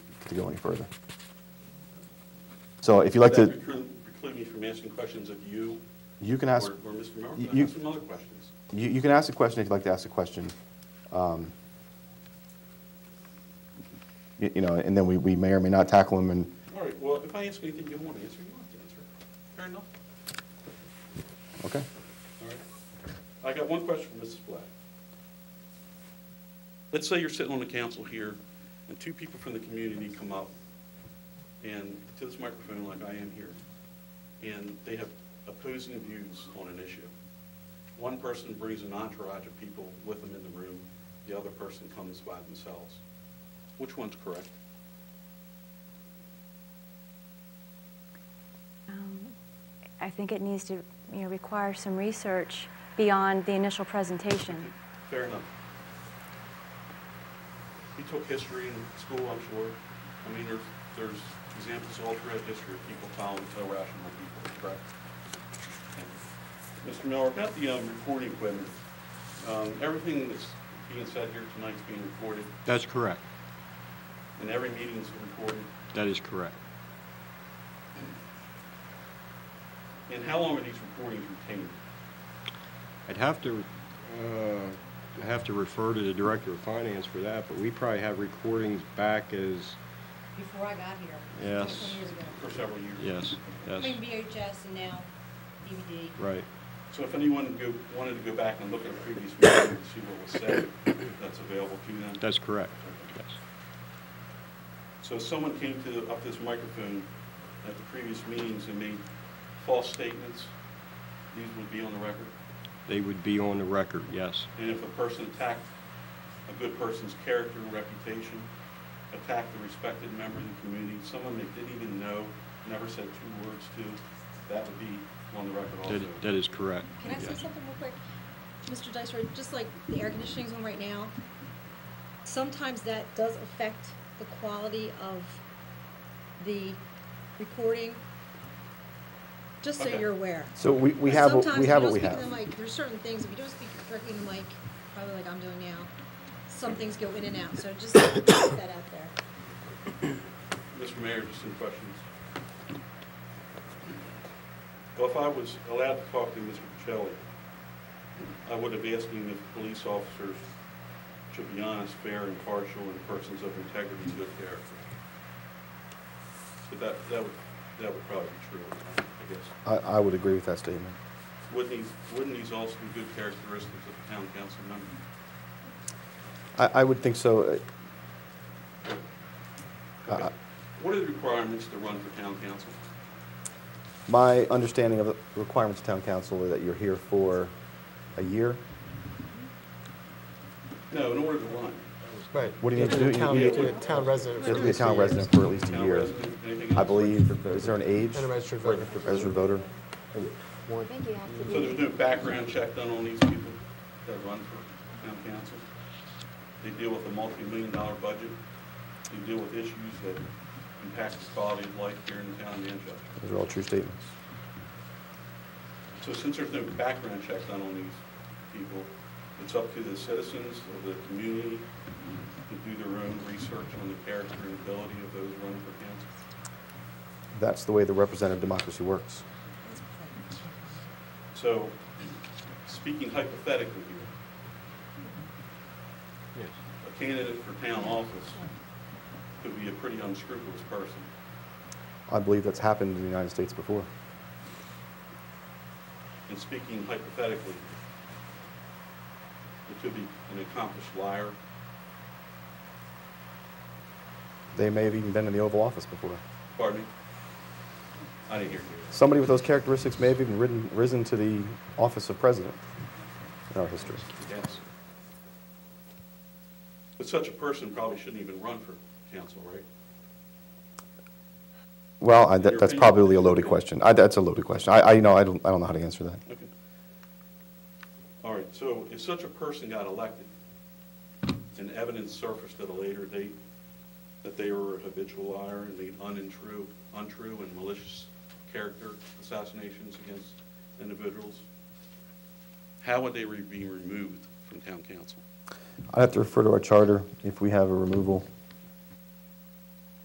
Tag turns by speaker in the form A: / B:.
A: to go any further. So if you'd like to,
B: Would that preclude- preclude me from asking questions of you?
A: you can ask,
B: Or or Mr. Merrill?
A: you-
B: Can I ask some other questions?
A: you, you can ask a question if you'd like to ask a question. Um, You, you know, and then we, we may or may not tackle them and,
B: All right, well, if I ask anything you want to answer, you have to answer. it. Fair enough.
A: okay.
B: All right. I got one question for Mrs. Black. Let's say you're sitting on the council here, and two people from the community come up and to this microphone like I am here, and they have opposing views on an issue. One person brings an entourage of people with them in the room, the other person comes by themselves. Which one's correct?
C: Um, I think it needs to, you know, require some research beyond the initial presentation.
B: Fair enough. He took history in school, I'm sure. I mean, there's, there's examples all throughout history of people following irrational people, correct? Mr. Miller, about the um, recording equipment, um, everything that's being said here tonight's being recorded,
D: That's correct.
B: and every meeting's recorded.
D: That is correct.
B: And how long are these recordings retained?
D: I'd have to, uh, have to refer to the Director of Finance for that, but we probably have recordings back as,
E: before I got here.
D: Yes.
E: 20 years ago.
B: For several years?
D: yes,
E: I
D: yes,
E: mean VHS and now DVD.
D: right.
B: So if anyone go- wanted to go back and look at previous meetings and see what was said, that's available to them?
D: That's correct, yes.
B: So if someone came to, up this microphone at the previous meetings and made false statements, these would be on the record.
D: They would be on the record, yes,
B: And if a person attacked a good person's character and reputation, attacked a respected member of the community, someone they didn't even know, never said two words to, that would be on the record also.
D: that, that is correct.
E: Can I say
D: yes.
E: something real quick? Mr. Dicer, just like the air conditioning's on right now, sometimes that does affect the quality of the recording, just so
B: Okay.
E: you're aware.
A: So we, we have, what- we have what we have.
E: Sometimes if you don't speak in the mic, there's certain things, if you don't speak directly in the mic, probably like I'm doing now, some things go in and out, so just put that out there.
B: Mr. Mayor, just some questions. Well, if I was allowed to talk to Mr. Pacelli, I would have asked him if police officers should be honest, fair, impartial, and persons of integrity and good character. But that, that would, that would probably be true, I guess.
A: I, I would agree with that statement.
B: Wouldn't these, wouldn't these also be good characteristics of a town council member?
A: I, I would think so. Uh, uh,
B: What are the requirements to run for town council?
A: My understanding of the requirements of town council are that you're here for a year.
B: No, in order to run.
F: Right.
A: What do you
F: have
A: need
F: to
A: to
F: be a
A: do?
F: town-
A: You
F: you
A: need
F: have to be a town resident.
A: You
F: for
A: have to be a
F: at
A: town
F: least years.
A: resident for at least a
B: Town
A: year.
B: resident, anything
A: I
B: else?
A: believe, is there an age?
F: And a registered voter.
A: Registered voter?
C: I think you have to
B: So there's
C: be,
B: no background check done on these people that run for town council? They deal with a multi-million dollar budget, they deal with issues that impact the quality of life here in the town of Manchester.
A: Those are all true statements.
B: So since there's no background check done on these people, it's up to the citizens of the community to do their own research on the character and ability of those running for council.
A: That's the way the representative democracy works.
B: So, speaking hypothetically here,
D: Yes.
B: a candidate for town office could be a pretty unscrupulous person.
A: I believe that's happened in the United States before.
B: And speaking hypothetically, it could be an accomplished liar.
A: They may have even been in the Oval Office before.
B: Pardon me? I didn't hear you.
A: Somebody with those characteristics may have even ridden, risen to the office of president in our history.
B: Yes. But such a person probably shouldn't even run for council, right?
A: Well, I, that,
B: Your
A: that's
B: opinion.
A: probably a loaded question. I, that's a loaded question. I, I, you know, I don't, I don't know how to answer that.
B: Okay. All right, so if such a person got elected and evidence surfaced at a later date that they were a habitual liar and made untrue, untrue and malicious character assassinations against individuals, how would they re- be removed from town council?
A: I'd have to refer to our charter if we have a removal